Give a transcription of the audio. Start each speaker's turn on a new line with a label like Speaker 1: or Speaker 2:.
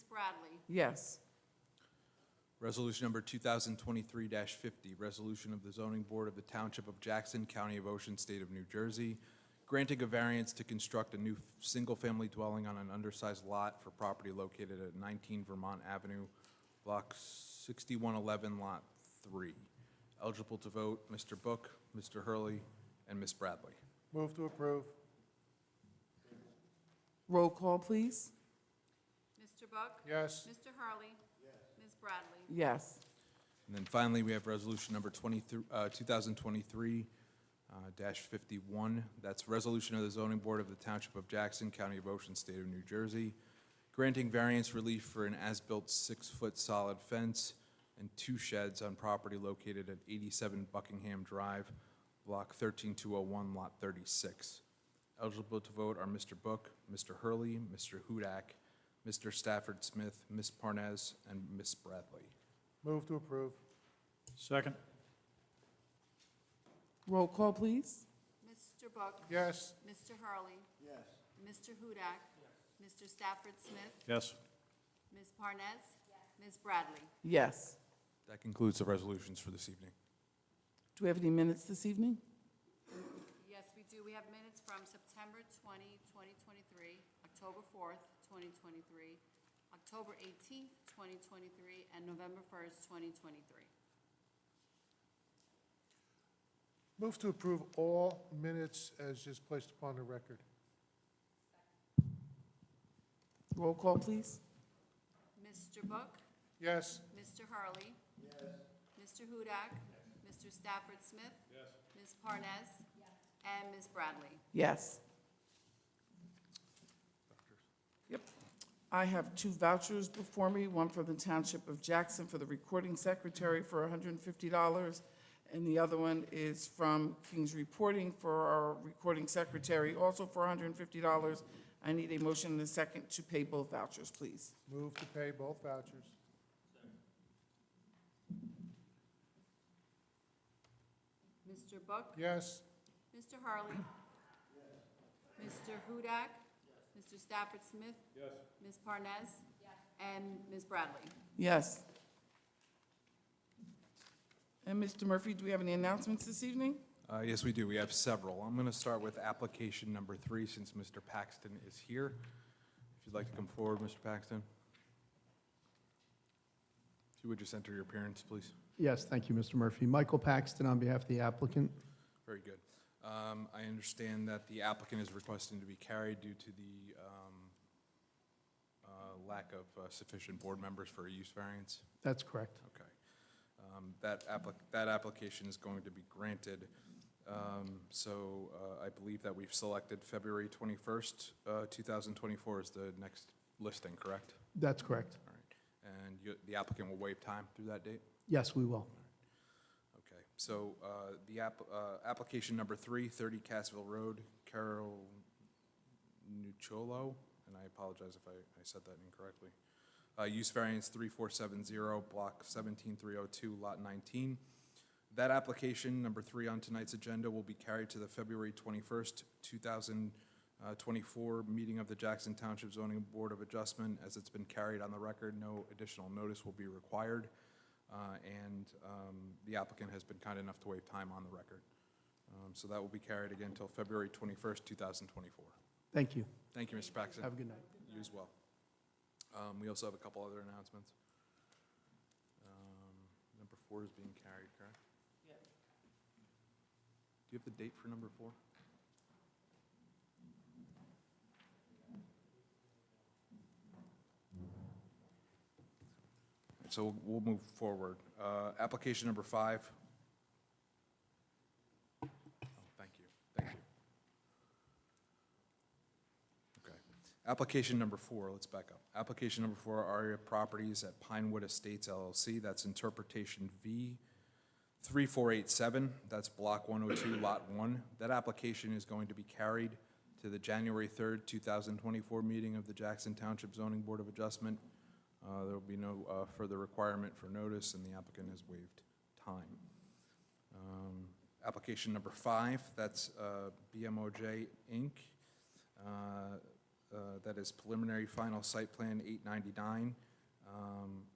Speaker 1: Yes.
Speaker 2: Resolution number 2023-50, resolution of the zoning board of the Township of Jackson, County of Ocean, State of New Jersey, granting a variance to construct a new f- single-family dwelling on an undersized lot for property located at 19 Vermont Avenue, Block 6111, Lot 3. Eligible to vote, Mr. Book, Mr. Hurley, and Ms. Bradley.
Speaker 3: Move to approve.
Speaker 1: Roll call, please.
Speaker 4: Mr. Book?
Speaker 3: Yes.
Speaker 4: Mr. Hurley? Ms. Bradley?
Speaker 1: Yes.
Speaker 2: And then finally, we have resolution number 23 uh, 2023, uh, dash 51. That's resolution of the zoning board of the Township of Jackson, County of Ocean, State of New Jersey, granting variance relief for an as-built six-foot solid fence and two sheds on property located at 87 Buckingham Drive, Block 13201, Lot 36. Eligible to vote are Mr. Book, Mr. Hurley, Mr. Hudak, Mr. Stafford Smith, Ms. Parnas, and Ms. Bradley.
Speaker 3: Move to approve.
Speaker 5: Second.
Speaker 1: Roll call, please.
Speaker 4: Mr. Book?
Speaker 3: Yes.
Speaker 4: Mr. Hurley? Yes. Mr. Hudak? Mr. Stafford Smith?
Speaker 5: Yes.
Speaker 4: Ms. Parnas? Ms. Bradley?
Speaker 1: Yes.
Speaker 2: That concludes the resolutions for this evening.
Speaker 1: Do we have any minutes this evening?
Speaker 4: Yes, we do. We have minutes from September 20, 2023, October 4th, 2023, October 18th, 2023, and November 1st, 2023.
Speaker 3: Move to approve all minutes as just placed upon the record.
Speaker 1: Roll call, please.
Speaker 4: Mr. Book?
Speaker 3: Yes.
Speaker 4: Mr. Hurley? Yes. Mr. Hudak? Mr. Stafford Smith? Yes. Ms. Parnas? Yes. And Ms. Bradley?
Speaker 1: Yes. Yep. I have two vouchers before me, one for the Township of Jackson for the recording secretary for $150, and the other one is from King's Reporting for our recording secretary, also for $150. I need a motion and a second to pay both vouchers, please.
Speaker 3: Move to pay both vouchers.
Speaker 4: Mr. Book?
Speaker 3: Yes.
Speaker 4: Mr. Hurley? Mr. Hudak? Mr. Stafford Smith? Yes. Ms. Parnas? Yes. And Ms. Bradley?
Speaker 1: Yes. And Mr. Murphy, do we have any announcements this evening?
Speaker 2: Uh, Yes, we do. We have several. I'm going to start with application number three, since Mr. Paxton is here. If you'd like to come forward, Mr. Paxton. If you would just enter your appearance, please.
Speaker 6: Yes, thank you, Mr. Murphy. Michael Paxton on behalf of the applicant.
Speaker 2: Very good. Um, I understand that the applicant is requesting to be carried due to the um, uh, lack of uh, sufficient board members for a use variance.
Speaker 6: That's correct.
Speaker 2: Okay. Um, That applic, that application is going to be granted. Um, So uh, I believe that we've selected February 21st, uh, 2024 is the next listing, correct?
Speaker 6: That's correct.
Speaker 2: All right. And you- the applicant will waive time through that date?
Speaker 6: Yes, we will.
Speaker 2: Okay. So uh, the app, uh, application number three, 30 Cassville Road, Carol Nucciolo, and I apologize if I I said that incorrectly. Uh, Use variance 3470, block 17302, lot 19. That application, number three on tonight's agenda, will be carried to the February 21st, 2024 meeting of the Jackson Township Zoning Board of Adjustment. As it's been carried on the record, no additional notice will be required, uh, and um, the applicant has been kind enough to waive time on the record. Um, So that will be carried again until February 21st, 2024.
Speaker 6: Thank you.
Speaker 2: Thank you, Mr. Paxton.
Speaker 6: Have a good night.
Speaker 2: You as well. Um, We also have a couple other announcements. Um, Number four is being carried, correct? Do you have the date for number four? So we'll- we'll move forward. Uh, Application number five. Oh, Thank you, thank you. Okay. Application number four, let's back up. Application number four, Aria Properties at Pinewood Estates LLC, that's interpretation V 3487, that's block 102, lot 1. That application is going to be carried to the January 3rd, 2024 meeting of the Jackson Township Zoning Board of Adjustment. Uh, There will be no uh, further requirement for notice, and the applicant has waived time. Um, Application number five, that's uh, BMOJ Inc., uh, uh, that is preliminary final site plan 899,